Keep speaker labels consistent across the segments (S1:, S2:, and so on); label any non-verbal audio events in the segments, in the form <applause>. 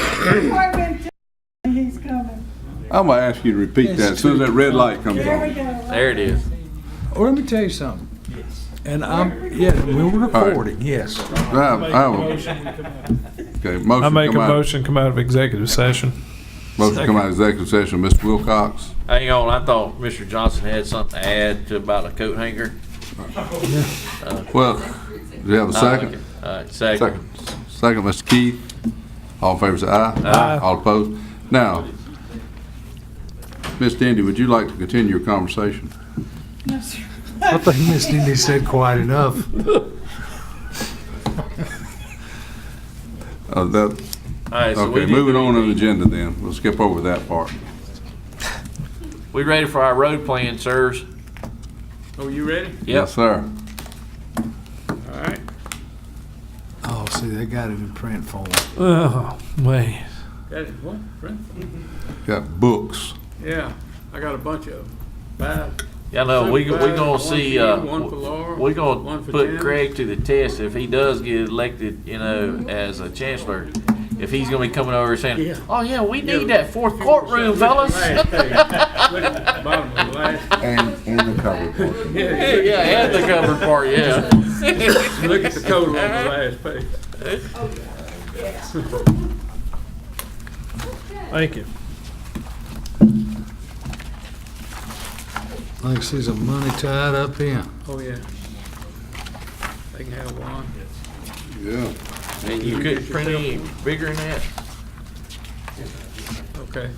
S1: Department, he's coming.
S2: I'm gonna ask you to repeat that as soon as that red light comes
S1: There we
S2: on.
S1: go.
S3: There it is.
S4: Well, let me tell you something. And I'm, yeah, we're recording, yes.
S2: I have- I have a- Okay, motion
S5: I make a
S2: come out-
S5: motion, come out of executive session.
S2: Motion come out of executive session, Mr. Wilcox.
S3: Hang on, I thought Mr. Johnson had something to add to about a coat hanger.
S2: Well, do you have a second?
S3: All right, second.
S2: Second, second, Mr. Keith. All in favor, say aye. Aye. All opposed? Now, Ms. Dandy, would you like to continue your conversation?
S1: No, sir.
S4: I think Miss Dindy said quite enough.
S2: Uh, that,
S3: All right, so we
S2: okay,
S3: need-
S2: moving on to the agenda then. We'll skip over that part.
S3: We ready for our road plan, sirs?
S6: Oh, you ready?
S2: Yes, sir.
S6: All right.
S4: Oh, see, they got it in print form.
S5: Oh, man.
S6: Got it. What? Friend?
S2: Got books.
S6: Yeah, I got a bunch of them. Five.
S3: Yeah, no, we, we gonna
S6: One
S3: see,
S6: for you,
S3: uh,
S6: one for Laura,
S3: we gonna
S6: one for
S3: put
S6: Janice.
S3: Craig to the test if he does get elected, you know, as a chancellor. If he's gonna be coming over
S6: Yeah.
S3: saying, oh yeah, we need
S6: Yeah.
S3: that fourth courtroom, fellas. <laughs>
S6: Last page. Look at the bottom of the last.
S2: And, and the cover portion.
S6: Yeah,
S3: Yeah, yeah, and the cover part,
S6: <laughs>
S3: yeah.
S6: yeah. Look at the total on the last page.
S5: Thank you.
S4: Like, see, there's money tied up in.
S6: Oh, yeah. They can have one.
S2: Yeah.
S3: And you couldn't print any bigger than that?
S6: Okay.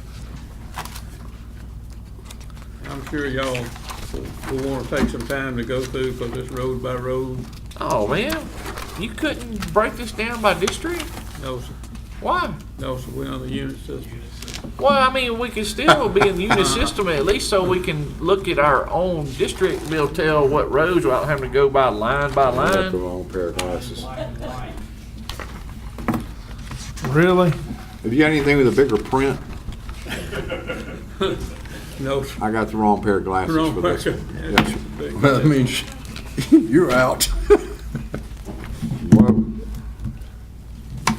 S6: I'm sure y'all will- will want to take some time to go through, because it's road by road.
S3: Oh, man, you couldn't break this down by district?
S6: No, sir.
S3: Why?
S6: No, sir, we're on the unit system.
S3: Well, I mean, we can still be in the unit system at least so we can look at our own district. and We'll tell what roads without having to go by line by line.
S2: wrong pair of glasses.
S5: Really?
S2: Have you got anything with a bigger print?
S6: No, sir.
S2: I got the wrong pair of glasses
S6: Wrong person.
S3: <laughs>
S2: <laughs> That means you're out.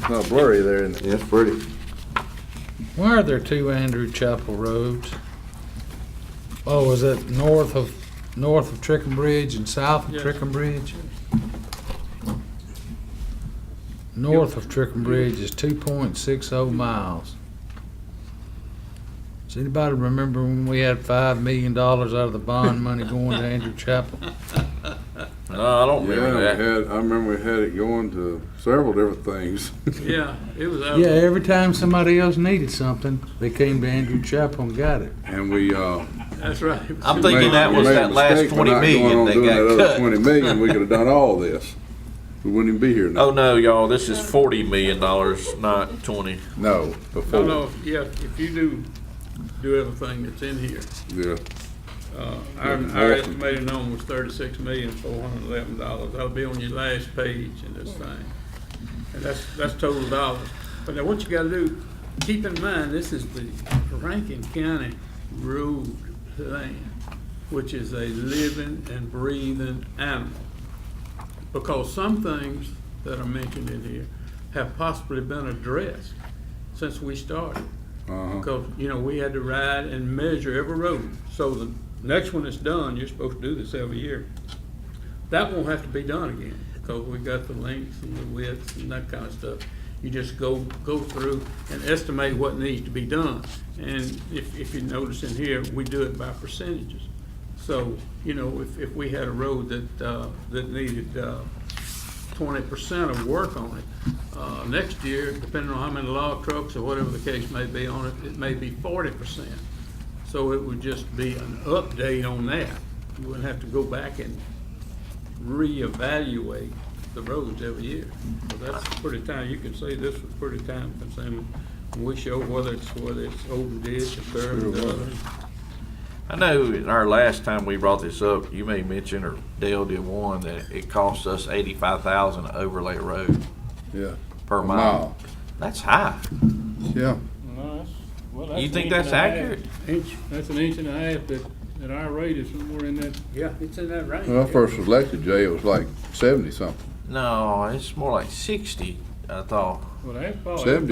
S2: Not blurry there, isn't it? Yes, pretty.
S4: Why are there two Andrew Chapel roads? Oh, is it north of, north of Trickum Bridge and south of
S6: Yes.
S4: Trickum Bridge? North of Trickum Bridge is two point six oh miles. Does anybody remember when we had five million dollars out of the bond <laughs> money going to Andrew Chapel?
S3: No, I don't
S2: Yeah, we
S3: remember that.
S2: had, I remember we had it going to several different things. <laughs>
S6: Yeah, it was out.
S4: Yeah, every time somebody else needed something, they came to Andrew Chapel and got it.
S2: And we, uh.
S6: That's right. It
S3: I'm
S6: was-
S3: thinking
S2: made-
S3: that
S2: we
S3: was
S2: made a
S3: that last
S2: mistake by
S3: 20
S2: not going
S3: million
S2: on
S3: that
S2: doing
S3: got
S2: that other
S3: cut.
S2: Twenty million, we could have done all this. We wouldn't even be here now.
S3: Oh, no, y'all, this is forty million dollars, not twenty.
S2: No,
S3: Oh,
S6: No,
S2: before,
S6: no, yeah, if you do, do everything that's in here,
S2: yeah.
S6: uh, our, our estimated number was thirty-six million, four hundred and eleven dollars. That'll be on your last page in this thing. And that's, that's total dollars. But now what you gotta do, keep in mind, this is the Rankin County road plan, which is a living and breathing animal. because some things that are mentioned in here have possibly been addressed since we started. Because, you know, we had to ride and measure every road. So the next one that's done, you're supposed to do this every year. That won't have to be done again, because we got the lengths and the widths and that kind of stuff. You just go, go through and estimate what needs to be done. And if, if you notice in here, we do it by percentages. So, you know, if, if we had a road that, uh, that needed, uh, twenty percent of work on it, uh, next year, depending on how many log trucks or whatever the case may be on it, it may be forty percent. So it would just be an update on that. You wouldn't have to go back and reevaluate the roads every year. So that's pretty time, you can see this was pretty time consuming. And we show whether it's, whether it's open ditch or curb or other.
S3: I know in our last time we brought this up, you may mention, or Dale did one, that it cost us eighty-five thousand to overlay a road
S2: Yeah.
S3: per
S2: Wow.
S3: mile. That's high.
S2: Yeah.
S3: You think that's accurate?
S7: Inch, that's an inch and a half, but at our rate, it's somewhere in that,
S6: Yeah, it's in that range.
S2: When I first was elected, Jay, it was like seventy something.
S3: No, it's more like sixty, I thought.
S7: well, that's probably.
S3: Oh,
S2: Seventy